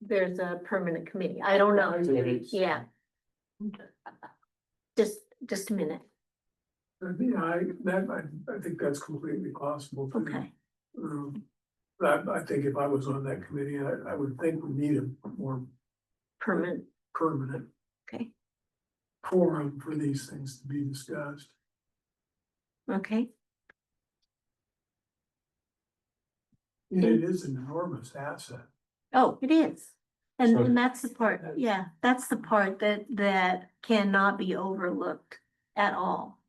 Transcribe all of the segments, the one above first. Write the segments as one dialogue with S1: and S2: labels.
S1: there's a permanent committee. I don't know.
S2: Activities.
S1: Yeah. Just, just a minute.
S3: I mean, Uh, I, that, I, I think that's completely possible. too.
S1: Okay.
S3: Um, But I, I think if I was on that committee, I, I would think we need a more
S1: Permanent,
S3: permanent
S1: okay,
S3: forum for these things to be discussed.
S1: okay.
S3: And It is an enormous asset.
S1: Oh, it is. And
S2: So-
S1: and that's the part, yeah, that's the part that, that cannot be overlooked at all.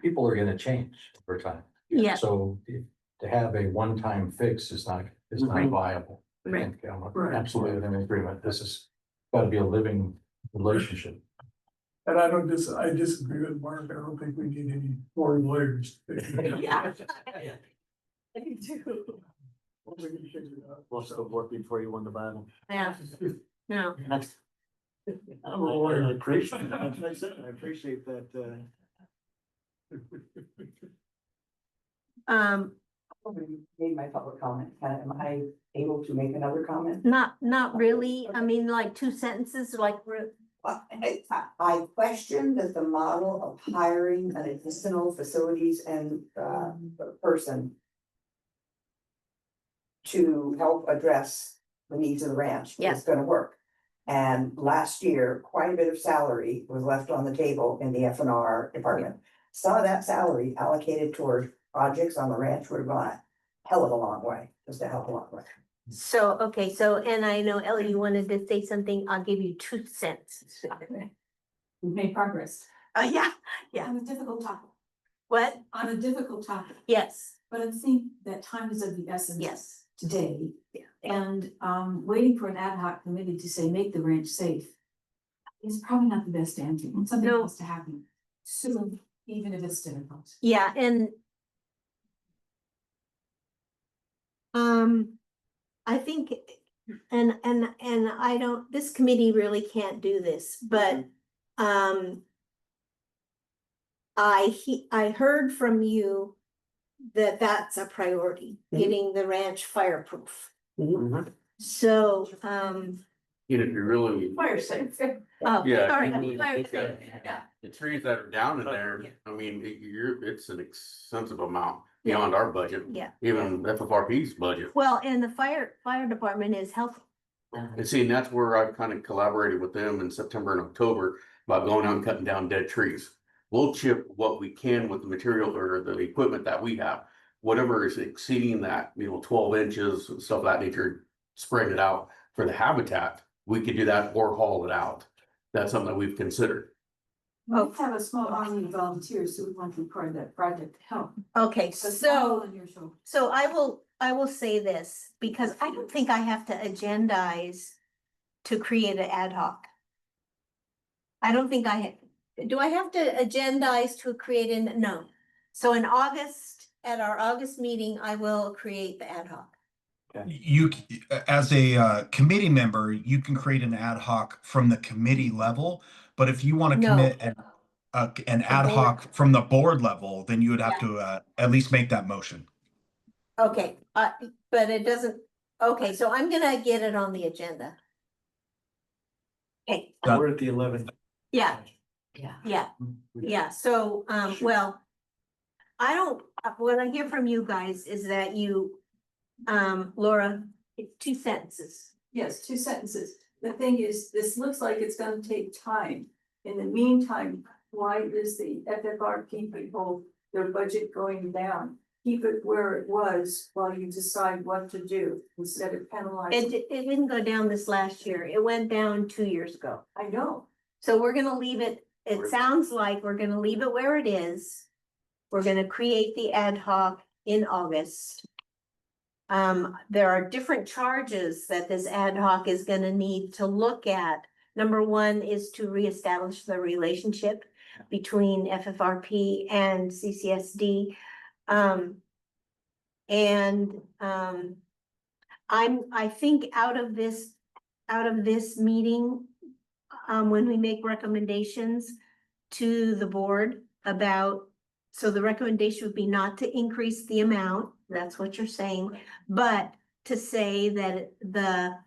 S2: people are gonna change over time.
S1: Yeah.
S2: So if- to have a one-time fix is not, is not
S1: Right.
S2: viable. I
S1: Right.
S2: think I'm
S3: Right.
S2: Absolutely in agreement. This is gotta be a living relationship.
S3: And I don't dis, I disagree with Mark. I don't think we need any foreign lawyers. I think
S1: Yeah.
S3: we can figure it out.
S4: Lots of work before you won the battle.
S1: Yeah, no,
S4: I'm a lawyer, I appreciate, I said, I appreciate that, uh.
S1: um,
S5: already made my public comment. Am I able to make another comment?
S1: not, not really. I mean, like two sentences, like, we're-
S5: Well, I, I question that the model of hiring an additional facilities and, uh, person to help address the needs of the ranch
S1: Yeah.
S5: is gonna work. And last year, quite a bit of salary was left on the table in the F and R department. Some of that salary allocated toward projects on the ranch would have gone a hell of a long way, just a hell of a long way.
S1: so, okay, so, and I know Ellie, you wanted to say something. I'll give you two cents.
S6: We've made progress
S1: Uh, yeah, yeah.
S6: on a difficult topic,
S1: What?
S6: on a difficult topic,
S1: Yes,
S6: but I think that time is of the essence.
S1: yes.
S6: Today.
S1: Yeah.
S6: And um waiting for an ad hoc committee to say, make the ranch safe. Is probably not the best answer, and something
S1: No.
S6: has to happen soon, even if it's difficult.
S1: Yeah, and. Um, I think, and, and, and I don't, this committee really can't do this, but, um. I he, I heard from you that that's a priority,
S5: Mhm.
S1: getting the ranch fireproof.
S4: Mhm.
S1: So, um,
S7: You know, if you really,
S6: Fire safe.
S1: oh,
S7: yeah,
S1: sorry.
S7: if you really
S1: fire
S7: look at
S1: safe.
S7: the trees that are down in there, I mean, it- you're, it's an extensive amount beyond our budget,
S1: Yeah,
S7: even FFRP's budget.
S1: well, and the fire, fire department is healthy.
S7: And see, and that's where I've kind of collaborated with them in September and October about going out and cutting down dead trees. We'll chip what we can with the material or the equipment that we have. Whatever is exceeding that, you know, twelve inches, stuff of that nature, spread it out for the habitat. We could do that or haul it out. That's something that we've considered.
S1: Oh.
S6: We have a small army of volunteers who would want to be part of that project to help.
S1: Okay,
S6: So. it's
S1: so.
S6: all On your shoulder.
S1: So I will, I will say this, because I don't think I have to agendize to create an ad hoc. I don't think I, ha- do I have to agendize to create an, no. So in August, at our August meeting, I will create the ad hoc.
S8: You, c- as a uh, committee member, you can create an ad hoc from the committee level, but if you want to
S1: No.
S8: commit an, a- an ad
S1: board.
S8: hoc from the board level, then you would have to uh, at least make that motion.
S1: Okay, uh, but it doesn't, okay, so I'm gonna get it on the agenda. Okay,
S8: Done.
S4: We're at the eleventh.
S1: yeah,
S5: Yeah.
S1: yeah. Yeah, so, um, well, I don't, uh, what I hear from you guys is that you, um, Laura, it's two sentences.
S6: Yes, two sentences. The thing is, this looks like it's gonna take time. In the meantime, why is the FFRP people, their budget going down? Keep it where it was while you decide what to do instead of
S1: It,
S6: penalizing.
S1: di- it didn't go down this last year. It went down two years ago.
S6: I know.
S1: So we're gonna leave it, it sounds like we're gonna leave it where it is. We're gonna create the ad hoc in August. Um, there are different charges that this ad hoc is gonna need to look at. Number one is to reestablish the relationship between FFRP and CCSD. Um, and, um, I'm, I think out of this, out of this meeting, um, when we make recommendations to the board about, so the recommendation would be not to increase the amount, that's what you're saying, but to say that the